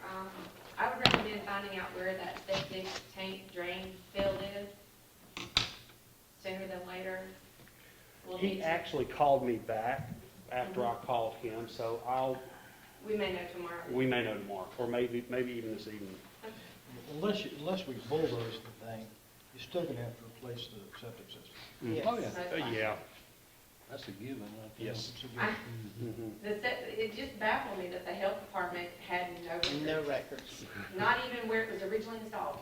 um, finding out where that septic tank drain field is sooner than later. We'll need He to, actually called me back after I called him, so I'll, we may know tomorrow. we may know tomorrow, or maybe, maybe even this evening. Unless, you- unless we bulldoze the thing, you're still gonna have to replace the septic system. Oh, yeah. So it's Uh, fine. Yeah. That's a given, right there. Yes. So you- I- Mhm. The, se- it just baffled me that the health department had no No records, records. not even where it was originally installed.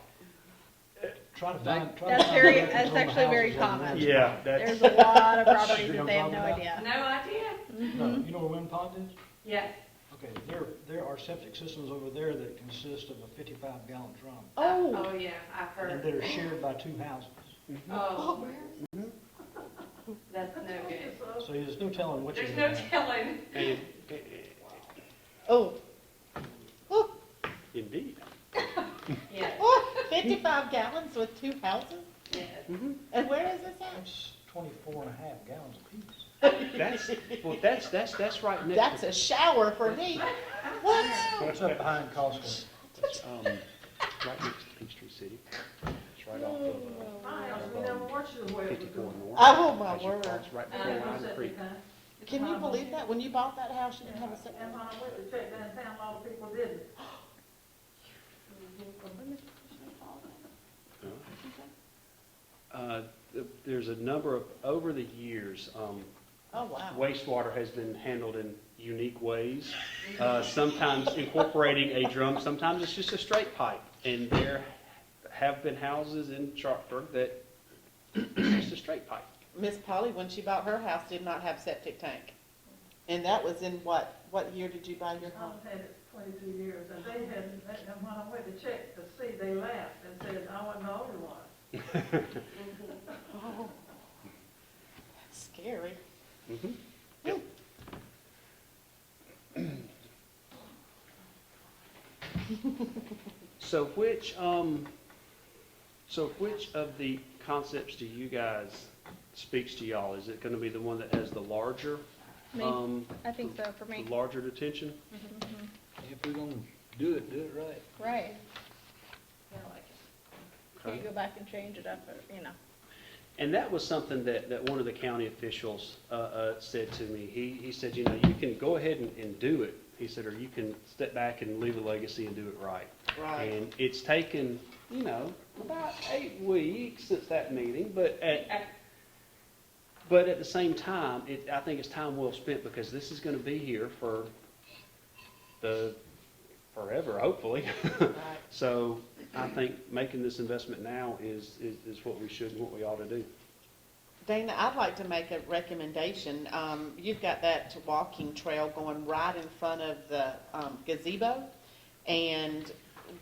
Try to They- find, try to That's find very- out that's who's on the actually very houses on the common. land. Yeah, that's, There's a lot of properties You know that they have what no I'm talking idea. No idea. No, Mm-hmm. you know where Wind Pond is? Yes, Okay, there, there are septic systems over there that consist of a fifty-five gallon drum, Oh, oh yeah, I've and heard. that are shared by two houses. Oh, that's no good. So there's no telling what you're There's gonna no have. telling. and- oh, indeed. Yes, oh, fifty-five gallons with two houses? yes. And where is this at? That's twenty-four and a half gallons apiece. That's, well, that's, that's, that's right next. That's a shower for me. What? It's up behind Costco. That's, um, right next to Peachtree City. It's right off of uh, fifty-four north. Oh, my As you word. cross Right before Um, Lion Creek. Can you believe that? When you bought that house, you didn't have a septic? And when I went to check that town, a lot of people didn't. Uh, th- There's a number of, over the years, um, Oh, wow. wastewater has been handled in unique ways, uh, sometimes incorporating a drum, sometimes it's just a straight pipe. And there have been houses in Sharpsburg that it's just a straight pipe. Miss Polly, when she bought her house, did not have septic tank. And that was in what, what year did you buy your home? I've had it twenty-two years, and they had, and when I went to check to see, they laughed and said, I wasn't the only one. Oh, That's scary. Mhm. So which, um, so which of the concepts do you guys speaks to y'all? Is it gonna be the one that has the larger, Me, um, I think so, for the me. larger detention? If we're gonna do it, do it right. Right. Can Okay. you go back and change it up, or, you know? And that was something that, that one of the county officials uh, uh, said to me. He, he said, you know, you can go ahead and, and do it. He said, or you can step back and leave a legacy and do it right. Right. And it's taken, you know, about eight weeks since that meeting, but at, but at the same time, it, I think it's time well spent because this is gonna be here for the, forever, hopefully. Right. So I think making this investment now is, is, is what we should, and what we ought to do. Dana, I'd like to make a recommendation. Um, you've got that walking trail going right in front of the um, gazebo. And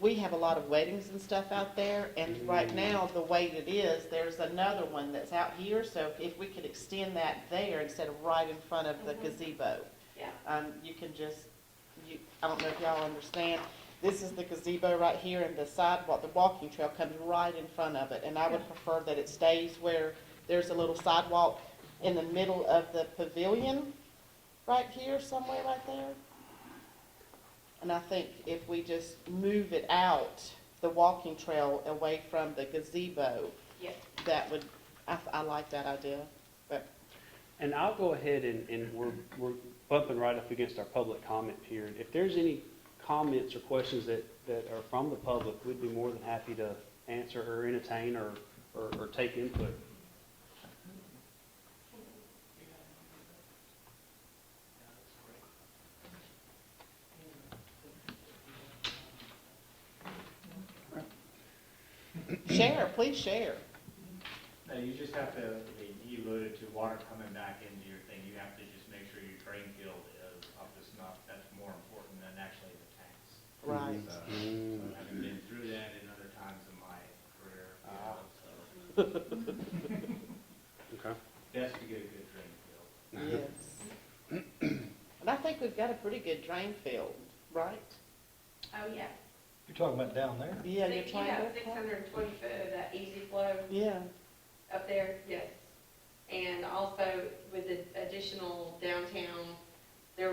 we have a lot of weddings and stuff out there. And right now, the way it is, there's another one that's out here. So if we could extend that there instead of right in front of the Mhm. gazebo. Yeah. Um, you can just, you, I don't know if y'all understand, this is the gazebo right here and the sidewalk, the walking trail comes right in front of it. And I would prefer that it stays where there's a little sidewalk in the middle of the pavilion, right here, somewhere right there. And I think if we just move it out, the walking trail away from the gazebo, Yes. that would, I, I like that idea. And I'll go ahead and, and we're, we're bumping right up against our public comment period. If there's any comments or questions that, that are from the public, we'd be more than happy to answer or entertain or, or, or take input. Share, please share. No, you just have to, you alluded to water coming back into your thing, you have to just make sure your drain field is up to snuff, that's more important than actually the tanks. Right. So, so having been through that in other times in my career, you know, so, Okay. best to get a good drain field. Yes. And I think we've got a pretty good drain field, right? Oh, yeah. You're talking about down there? Yeah, you're Six- trying to. Six hundred and twenty foot of that easy flow Yeah, up there, yes. And also with the additional downtown